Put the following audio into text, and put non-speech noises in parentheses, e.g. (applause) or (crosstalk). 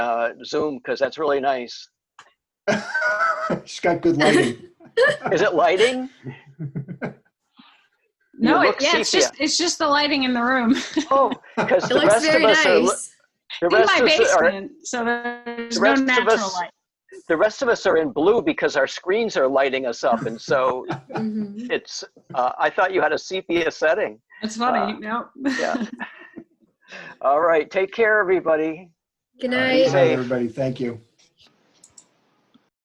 uh, Zoom because that's really nice. (laughs) She's got good lighting. Is it lighting? (laughs) No, You it, look yeah, it's sepia. just it's just the lighting in the room. Oh, because It the looks rest of very us are, li- nice. the in rest my of us are, basement, so there's the no rest of natural us- light. the rest of us are in blue because our screens are lighting us up. And (laughs) so Mhm. it's, uh, I thought you had a sepia setting. That's uh, funny. no. (laughs) yeah. All right. Take care, everybody. Good Good night. night, Everybody, thank you.